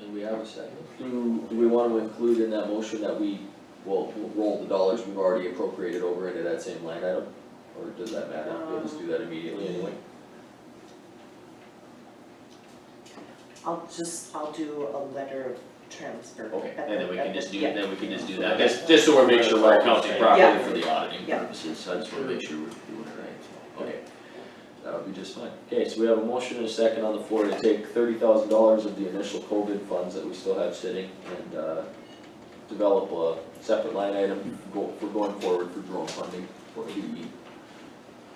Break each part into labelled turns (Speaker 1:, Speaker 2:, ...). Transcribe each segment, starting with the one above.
Speaker 1: Do we have a second? Do, do we wanna include in that motion that we, well, we'll roll the dollars we've already appropriated over into that same line item? Or does that matter? We'll just do that immediately anyway.
Speaker 2: I'll just, I'll do a letter of transfer.
Speaker 1: Okay,
Speaker 2: at
Speaker 3: And then
Speaker 2: the-
Speaker 3: we
Speaker 2: at
Speaker 3: can
Speaker 2: the-
Speaker 3: just do,
Speaker 2: yeah.
Speaker 3: then we can just do
Speaker 1: I
Speaker 3: that,
Speaker 1: guess,
Speaker 3: just,
Speaker 1: just so we're making sure we're accounting properly
Speaker 2: Yeah.
Speaker 1: for the auditing
Speaker 2: Yeah.
Speaker 1: purposes, so I just wanna make sure we're doing it right, so, okay. That would be just fine.
Speaker 3: okay, so we have a motion and a second on the floor to take thirty thousand dollars of the initial COVID funds that we still have sitting and, uh, develop a separate line item go, for going forward for drone funding for the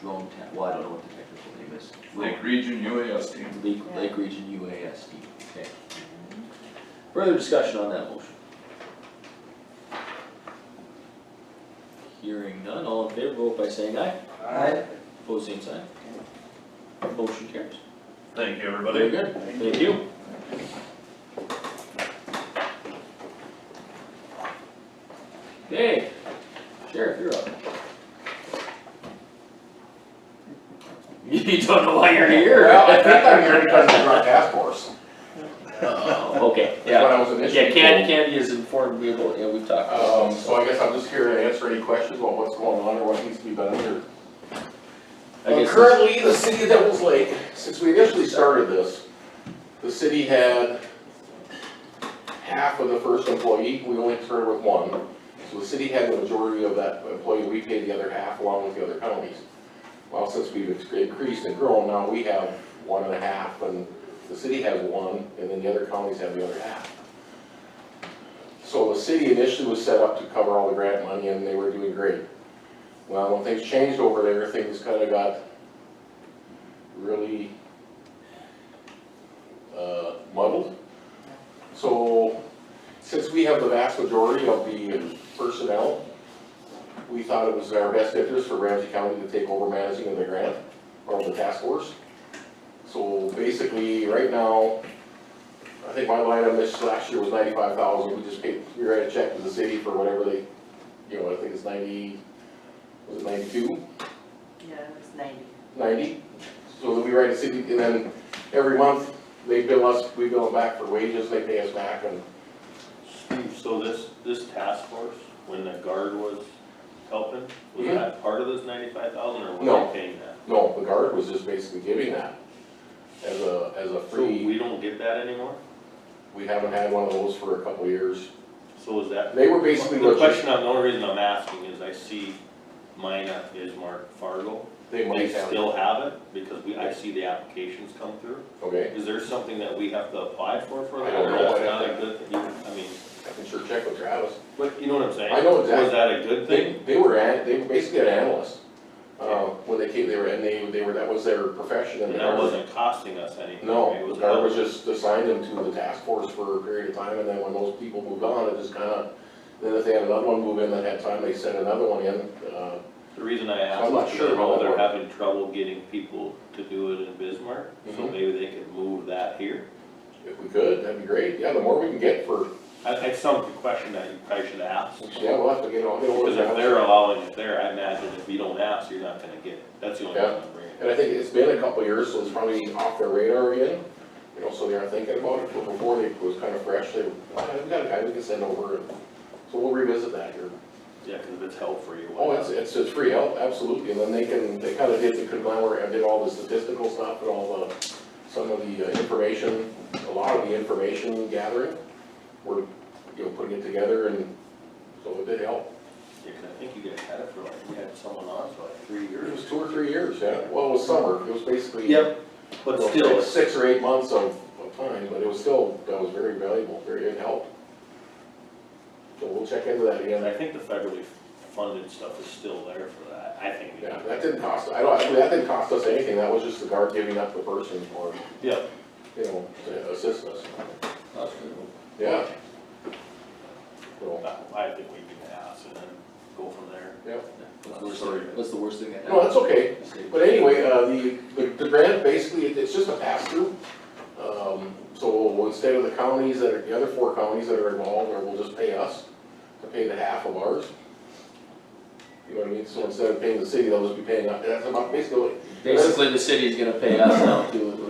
Speaker 3: drone ta- well, I don't know what the technical name is.
Speaker 4: Lake Region UASD.
Speaker 3: Lake, Lake Region UASD, okay. Further discussion on that motion? Hearing none, all in favor, vote by saying aye.
Speaker 1: Alright.
Speaker 3: Opposed, same sign. Motion carries.
Speaker 4: Thank you,
Speaker 3: Very good, thank you. Okay, Sheriff, you're up. You don't know why you're here.
Speaker 5: Well, I think I'm here because of the drug task force.
Speaker 3: Oh, okay,
Speaker 5: That's
Speaker 3: yeah.
Speaker 5: what I was initially.
Speaker 3: Yeah, Candy, Candy has informed me about, yeah, we've talked about
Speaker 5: Um, so I guess I'm just here to answer any questions about what's going on or what needs to be done here.
Speaker 3: I guess
Speaker 5: Well,
Speaker 3: this-
Speaker 5: currently, the city of Devils Lake, since we initially started this, the city had half of the first employee, we only started with one. So the city had the majority of that employee, we paid the other half along with the other counties. Well, since we've ex- increased and grown, now we have one and a half, and the city has one, and then the other counties have the other half. So the city initially was set up to cover all the grant money, and they were doing great. Well, when things changed over there, things kinda got really uh, muddled. So, since we have the vast majority of the personnel, we thought it was in our best interest for Ramsey County to take over managing of the grant, or the task force. So basically, right now, I think my line on this last year was ninety-five thousand, we just paid, we write a check to the city for whatever they, you know, I think it's ninety, was it ninety-two?
Speaker 2: Yeah, it was ninety.
Speaker 5: ninety, so that we write a city, and then every month, they bill us, we bill them back for wages, they pay us back, and
Speaker 6: So this, this task force, when the guard was helping, was
Speaker 5: Mhm.
Speaker 6: that part of this ninety-five thousand or
Speaker 5: No.
Speaker 6: were they paying that?
Speaker 5: no, the guard was just basically giving that as a, as a
Speaker 6: So
Speaker 5: free,
Speaker 6: we don't get that anymore?
Speaker 5: we haven't had one of those for a couple of years.
Speaker 6: So is that?
Speaker 5: They were basically
Speaker 6: The
Speaker 5: what you,
Speaker 6: question, I'm- the only reason I'm asking is I see mine at Ismark Fargo.
Speaker 5: they
Speaker 6: They
Speaker 5: might have,
Speaker 6: still have it because we, I see the applications come through.
Speaker 5: okay,
Speaker 6: Is there something that we have to apply for for
Speaker 5: I
Speaker 6: that?
Speaker 5: don't
Speaker 6: or
Speaker 5: know.
Speaker 6: That's
Speaker 5: I'd have
Speaker 6: not a
Speaker 5: to-
Speaker 6: good, thing? I mean,
Speaker 5: I can sure check with Travis.
Speaker 6: but you know what I'm saying?
Speaker 5: I know
Speaker 6: Was
Speaker 5: exactly.
Speaker 6: that a good
Speaker 5: They,
Speaker 6: thing?
Speaker 5: they were, an- they were basically an analyst, uh, when they came, they were, and they, they were, that was their profession, and
Speaker 6: And
Speaker 5: they
Speaker 6: that
Speaker 5: were-
Speaker 6: wasn't costing us anything, right? It
Speaker 5: No,
Speaker 6: was
Speaker 5: I
Speaker 6: helping.
Speaker 5: was just assigned them to the task force for a period of time, and then when those people moved on, it just kinda, then if they had another one move in that had time, they sent another one in, uh,
Speaker 6: The reason I
Speaker 5: I'm not
Speaker 6: asked,
Speaker 5: sure
Speaker 6: you
Speaker 5: how
Speaker 6: know,
Speaker 5: that
Speaker 6: they're
Speaker 5: works.
Speaker 6: having trouble getting people to do it in Bismarck, so
Speaker 5: Mhm.
Speaker 6: maybe they could move that here.
Speaker 5: if we could, that'd be great, yeah, the more we can get for,
Speaker 6: I, I some question that you probably should ask,
Speaker 5: yeah, we'll have to get on, get
Speaker 6: because if
Speaker 5: on.
Speaker 6: they're allowing it there, I imagine if you don't ask, you're not gonna get it, that's the only
Speaker 5: Yeah.
Speaker 6: thing I'm bringing.
Speaker 5: And I think it's been a couple of years, so it's probably off their radar again, you know, so they are thinking about it, but before they, it was kinda fresh, they, "Ah, we got a guy we can send over, and, so we'll revisit that here.
Speaker 6: Yeah, cause if it's help for you,
Speaker 5: Oh,
Speaker 6: why
Speaker 5: it's,
Speaker 6: not?
Speaker 5: it's, it's free help, absolutely, and then they can, they kind of did the conglomerate, and did all the statistical stuff and all the, some of the uh, information, a lot of the information gathering, we're, you know, putting it together, and so it did help.
Speaker 6: Yeah, 'cause I think you guys had it for like, we had someone on for like three
Speaker 5: It was
Speaker 6: years,
Speaker 5: two or three years, yeah, well, it was summer, it was basically.
Speaker 6: Yep.
Speaker 5: you
Speaker 6: but
Speaker 5: know,
Speaker 6: still,
Speaker 5: six-
Speaker 6: it's-
Speaker 5: Six or eight months of, of time, but it was still, that was very valuable, very, it helped. So we'll check into that again.
Speaker 6: and I think the federally funded stuff is still there for that, I think. it is.
Speaker 5: Yeah, that didn't cost, I don't, I mean, that didn't cost us anything, that was just the guard giving up the person for,
Speaker 6: Yeah,
Speaker 5: you know, to assist us.
Speaker 1: That's good.
Speaker 5: Yeah. So,
Speaker 6: I I think we can ask and then go from there.
Speaker 1: What's the worst thing- What's the worst thing that
Speaker 5: No,
Speaker 1: happened?
Speaker 5: that's okay,
Speaker 1: Mistake.
Speaker 5: but anyway, uh, the, the, the grant, basically, it- it's just a pass-through. Um, so instead of the counties that are, the other four counties that are involved, or will just pay us, to pay the half of ours. You know what I mean, so instead of paying the city, they'll just be paying, us. that's about, uh, basically,
Speaker 3: Basically, the city's gonna pay us now too,